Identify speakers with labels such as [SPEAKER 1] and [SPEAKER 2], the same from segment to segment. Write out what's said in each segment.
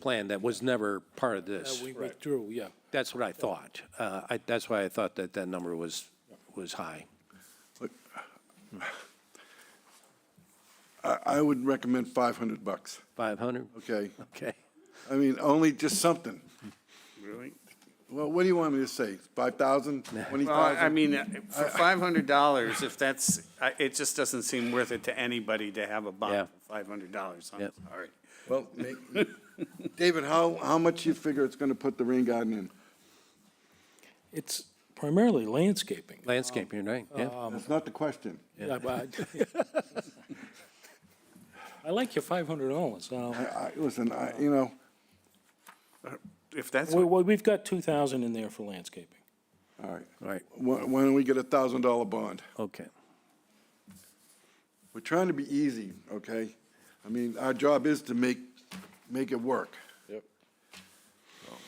[SPEAKER 1] plan that was never part of this.
[SPEAKER 2] We withdrew, yeah.
[SPEAKER 1] That's what I thought. Uh, I, that's why I thought that that number was, was high.
[SPEAKER 3] I, I would recommend 500 bucks,
[SPEAKER 1] 500?
[SPEAKER 3] okay?
[SPEAKER 1] Okay.
[SPEAKER 3] I mean, only just something.
[SPEAKER 4] Really?
[SPEAKER 3] Well, what do you want me to say? 5,000,
[SPEAKER 4] Well, I
[SPEAKER 3] 20,000?
[SPEAKER 4] mean, uh, for five hundred dollars, if that's, I- it just doesn't seem worth it to anybody to have a
[SPEAKER 1] Yeah.
[SPEAKER 4] bond for five hundred dollars. I'm
[SPEAKER 1] Yep.
[SPEAKER 4] sorry.
[SPEAKER 3] Well, ma- David, how, how much you figure it's going to put the rain garden in?
[SPEAKER 2] It's primarily landscaping.
[SPEAKER 1] Landscaping, right? Yeah.
[SPEAKER 3] That's not the question.
[SPEAKER 2] Yeah, but I- I like your five hundred dollars.
[SPEAKER 3] I, I, listen, I, you know,
[SPEAKER 4] If that's,
[SPEAKER 2] Well, we've got two thousand in there for landscaping.
[SPEAKER 3] all right.
[SPEAKER 1] Right,
[SPEAKER 3] Why, why don't we get a $1,000 bond?
[SPEAKER 1] okay.
[SPEAKER 3] We're trying to be easy, okay? I mean, our job is to make, make it work.
[SPEAKER 2] Yep.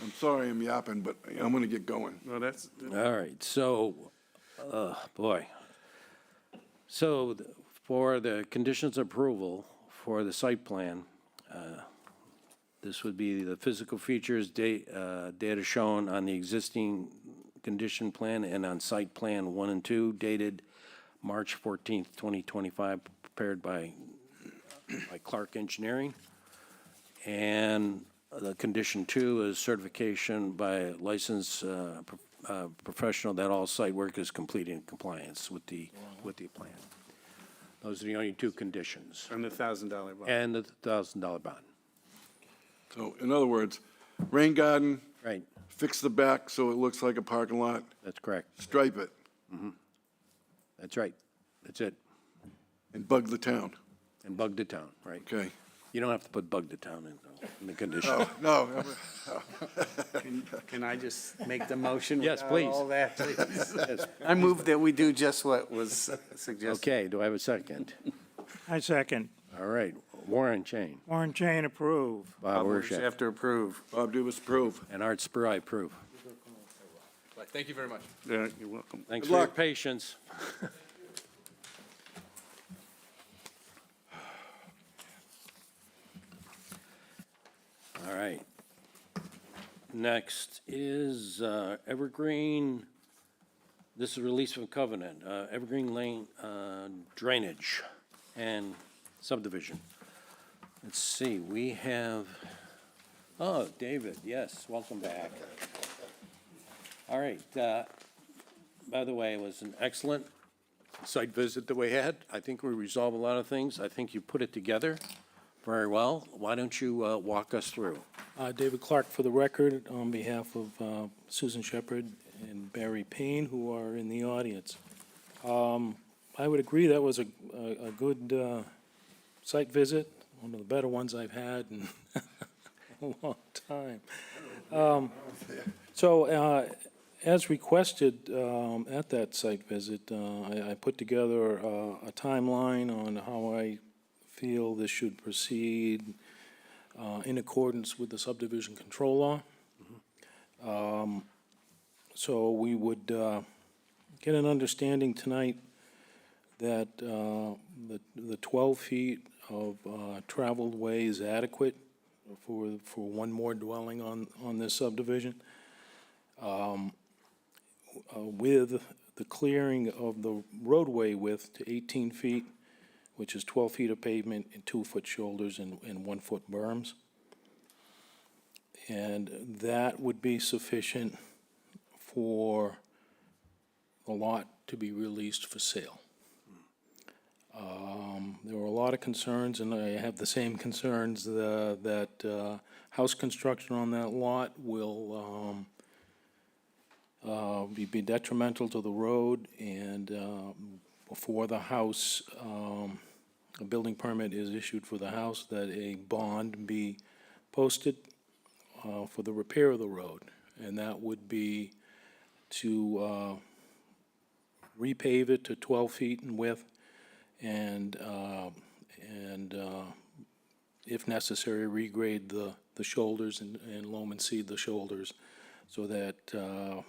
[SPEAKER 3] I'm sorry I'm yapping, but I'm going to get going.
[SPEAKER 4] well, that's,
[SPEAKER 1] All right, so, uh, boy. So th- for the conditions of approval for the site plan, uh, this would be the physical features, da- uh, data shown on the existing condition plan and on site plan one and two dated March fourteenth, twenty twenty-five, prepared by, by Clark Engineering. And the condition two is certification by a licensed uh, pro- uh, professional that all site work is completed in compliance with the, with the plan. Those are the only two conditions,
[SPEAKER 4] and the thousand dollar bond.
[SPEAKER 1] and the thousand dollar bond.
[SPEAKER 3] So in other words, rain garden,
[SPEAKER 1] Right,
[SPEAKER 3] fix the back so it looks like a parking lot,
[SPEAKER 1] that's correct,
[SPEAKER 3] stripe it,
[SPEAKER 1] that's right, that's it,
[SPEAKER 3] and bug the town,
[SPEAKER 1] and bug the town, right?
[SPEAKER 3] okay?
[SPEAKER 1] You don't have to put bug the town in, though, in the
[SPEAKER 3] Oh.
[SPEAKER 1] condition.
[SPEAKER 3] No,
[SPEAKER 4] Can I just make the motion?
[SPEAKER 1] Yes,
[SPEAKER 4] without
[SPEAKER 1] please.
[SPEAKER 4] All that, please? I move that we do just what was suggested.
[SPEAKER 1] Okay, do I have a second?
[SPEAKER 5] I second.
[SPEAKER 1] All right, Warren Chain,
[SPEAKER 5] Warren Chain approve.
[SPEAKER 1] Bob
[SPEAKER 4] Others
[SPEAKER 1] Urshak,
[SPEAKER 4] Have to approve.
[SPEAKER 3] Bob Dubus, approve.
[SPEAKER 1] and Art Spur, I approve.
[SPEAKER 6] Thank you very much.
[SPEAKER 4] Yeah, Uh, You're welcome.
[SPEAKER 1] Thanks
[SPEAKER 3] Good
[SPEAKER 1] for your
[SPEAKER 3] luck.
[SPEAKER 1] patience. All right. Next is uh, Evergreen, this is release from covenant, uh, Evergreen Lane uh, Drainage and subdivision. Let's see, we have, oh, David, yes, welcome back. All right, uh, by the way, it was an excellent site visit that we had. I think we resolved a lot of things. I think you put it together very well. Why don't you uh, walk us through?
[SPEAKER 2] Uh, David Clark, for the record, on behalf of uh, Susan Shepherd and Barry Payne, who are in the audience. Um, I would agree that was a, a a good uh, site visit, one of the better ones I've had in a long time. Um, So uh, as requested um, at that site visit, uh, I, I put together uh, a timeline on how I feel this should proceed, uh, in accordance with the subdivision control law. Um, So we would uh, get an understanding tonight that uh, the the 12 feet of uh, traveled way is adequate for, for one more dwelling on, on this subdivision, Um, uh, with the clearing of the roadway width to 18 feet, which is 12 feet of pavement and two-foot shoulders and, and one-foot berms. And that would be sufficient for the lot to be released for sale. Um, There were a lot of concerns, and I have the same concerns, uh, that uh, house construction on that lot will um, uh, be be detrimental to the road, and um, before the house, um, a building permit is issued for the house, that a bond be posted uh, for the repair of the road, and that would be to uh, repave it to 12 feet in width and, uh, and uh, if necessary, regrade the, the shoulders and and loam and seed the shoulders so that uh,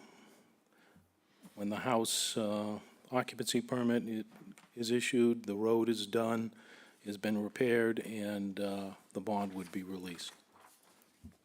[SPEAKER 2] when the house uh, occupancy permit i- is issued, the road is done, has been repaired, and uh, the bond would be released.